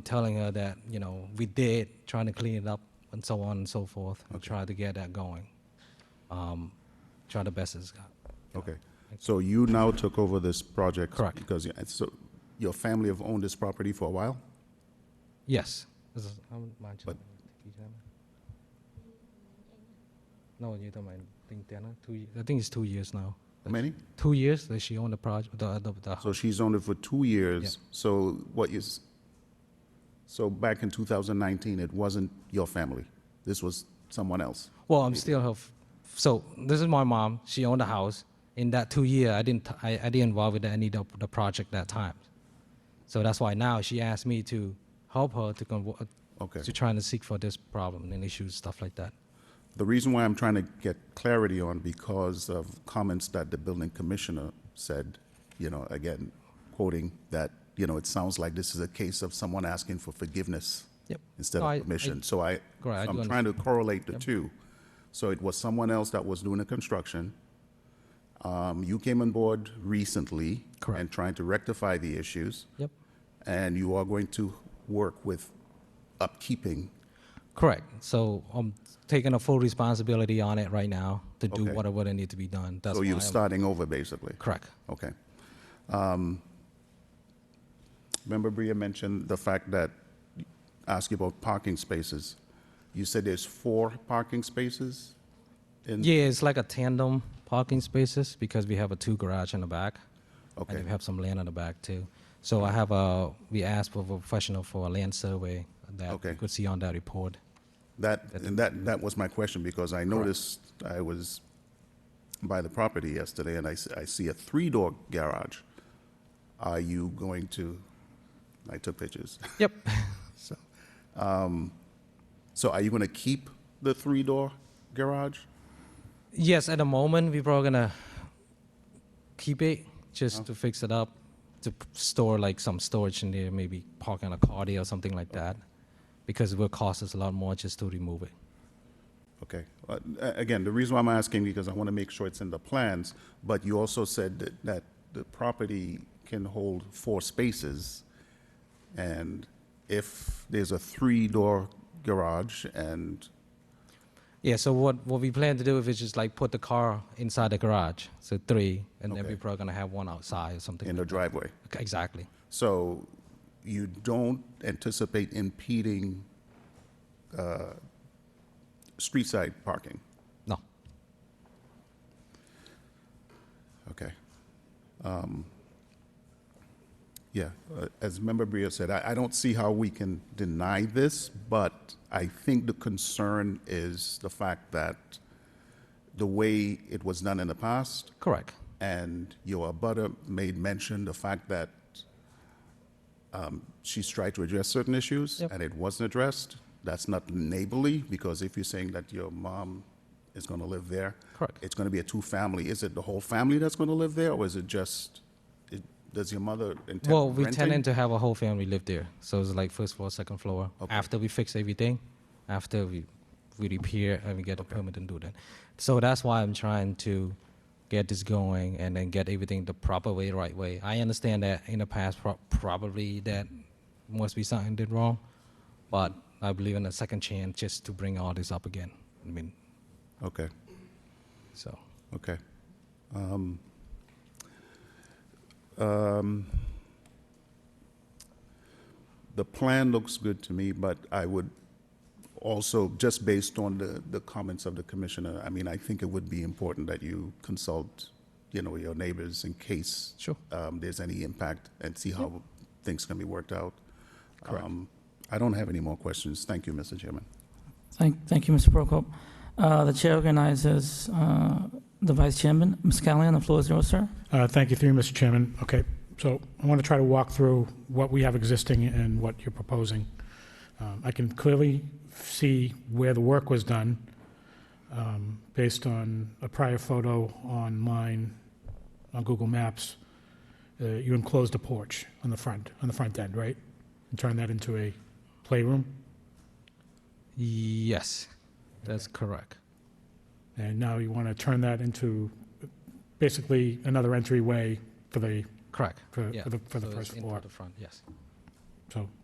telling her that, you know, we did, trying to clean it up and so on and so forth. and Try to get that going. Um, Try the best it's got. Okay, so you now took over this project? Correct. Because, you- so, your family have owned this property for a while? Yes. This is- I wouldn't mind just- you tell me. No, you don't mind. I think, they're not two, ye- I think it's two years now. How many? Two years that she owned the project, the, the, the So she's owned it for two years, so what is, so back in 2019, it wasn't your family? This was someone else? Well, I'm still her. F- so this is my mom. She owned the house. In that two year, I didn't I, I didn't involve with any of the project that time. So that's why now she asked me to help her to convo- Okay. to trying to seek for this problem and issues stuff like that. The reason why I'm trying to get clarity on because of comments that the building commissioner said, you know, again, quoting that, you know, it sounds like this is a case of someone asking for forgiveness Yep. instead No, I- of I- permission. So I, Correct, I do I'm trying to correlate the two. So it was someone else that was doing the construction. Um, You came on board recently. Correct. And trying to rectify the issues. Yep. And you are going to work with upkeeping. Correct. So I'm taking a full responsibility on it right now to do Okay. whatever that need to be done. That's So why you're I'm- starting over, basically. correct. Okay. Um, Remember Bria mentioned the fact that, ask you about parking spaces. You said there's four parking spaces? in- Yeah, it's like a tandem parking spaces because we have a two garage in the back. Okay. And we have some land in the back too. So I have a, we asked for a professional for a land survey that Okay. you could see on that report. That, and that, that was my question, because I noticed, I was by the property yesterday, and I, s- I see a three-door garage. Are you going to, I took pictures. Yep. So are you going to keep the three-door garage? Yes, at the moment, we probably gonna keep it Uh-huh. just to fix it up, to p- store like some storage in there, maybe parking a car there or something like that. Because it will cost us a lot more just to remove it. Okay. Uh, a- Again, the reason why I'm asking, because I want to make sure it's in the plans, but you also said that- that the property can hold four spaces, and if there's a three-door garage and, Yeah, so what, what we plan to do is just like put the car inside the garage, so three, and then Okay. we're probably gonna have one outside or something. in the driveway. Okay, Exactly. So you don't anticipate impeding uh, street-side parking? No. Okay. Um, Yeah, uh, as Member Bria said, I, I don't see how we can deny this, but I think the concern is the fact that the way it was done in the past, Correct. and your abutter made mention the fact that um, she's tried to address certain issues, Yep. and it wasn't addressed. That's not neighborly, because if you're saying that your mom is going to live there, Correct. it's going to be a two-family. Is it the whole family that's going to live there, or is it just, it- does your mother intend renting? Well, we tended to have a whole family live there, so it's like first floor, second floor. After we fix everything, after we we repair and we get a permit and do that. So that's why I'm trying to get this going and then get everything the proper way, right way. I understand that in the past pro- probably that must be something did wrong, but I believe in a second chance just to bring all this up again. I mean, Okay. so. Okay. Um, um, The plan looks good to me, but I would also, just based on the, the comments of the commissioner, I mean, I think it would be important that you consult, you know, your neighbors in case Sure. um, there's any impact and see how things can be worked out. Um, I don't have any more questions. Thank you, Mr. Chairman. Thank, thank you, Mr. Prokop. Uh, The chair recognizes uh, the vice chairman. Ms. Callahan, the floor is yours, sir. Uh, Thank you, through you, Mr. Chairman. Okay, so I want to try to walk through what we have existing and what you're proposing. Um, I can clearly see where the work was done um, based on a prior photo online on Google Maps. Uh, You enclosed a porch on the front, on the front end, right? And turned that into a playroom? Yes, that's correct. And now you want to turn that into basically another entryway for the, Correct. for Yeah. for the for So the it's first in floor. the front, yes. So